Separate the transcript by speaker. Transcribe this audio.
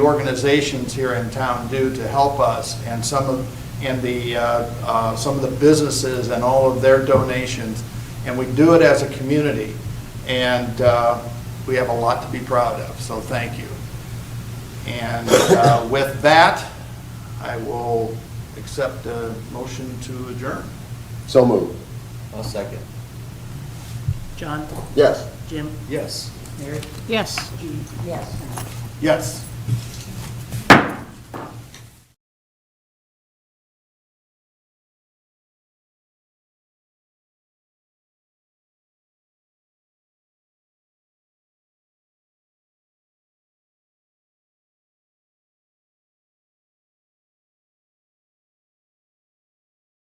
Speaker 1: organizations here in town do to help us, and some of, and the, uh, uh, some of the businesses and all of their donations, and we do it as a community, and uh, we have a lot to be proud of, so thank you. And uh, with that, I will accept a motion to adjourn.
Speaker 2: So moved.
Speaker 3: I'll second.
Speaker 4: John,
Speaker 2: Yes.
Speaker 4: Jim,
Speaker 3: Yes.
Speaker 4: Mary?
Speaker 5: Yes.
Speaker 4: Judy?
Speaker 5: Yes.
Speaker 1: Yes.